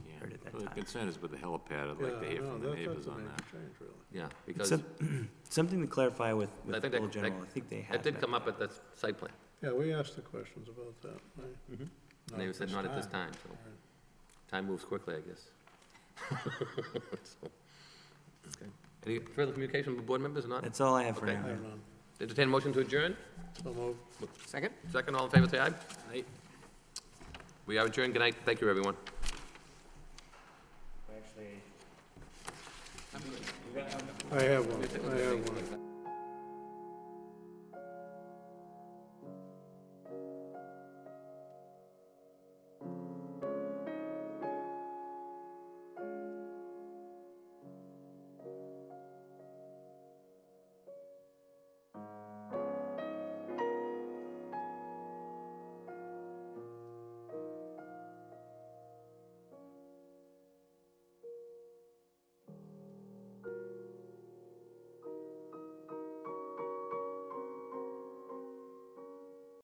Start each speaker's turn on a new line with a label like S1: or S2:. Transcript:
S1: concern is with the helipad, I'd
S2: Yeah,
S1: like to hear
S2: no,
S1: from the
S2: that-
S1: neighbors
S2: that's a
S1: on
S2: major
S1: that.
S2: change, really.
S3: Yeah, because
S4: Some- Something to clarify with,
S3: I
S4: with
S3: think
S4: Bill
S3: that- that-
S4: General, I think they have.
S3: that did
S4: that.
S3: come up at the site plan,
S2: Yeah, we asked the questions about that, right?
S3: and they Mm-hmm. said not at this time, so
S2: Right.
S3: time moves quickly, I guess. So, okay. Any further communication with board members, or not?
S4: That's all I have for
S3: Okay.
S4: now.
S2: I don't know.
S3: Entertain a motion to adjourn?
S2: So moved.
S3: Second. Second, all in favor, say aye. Aye. We are adjourned, good night, thank you, everyone.
S2: I have one, I have one.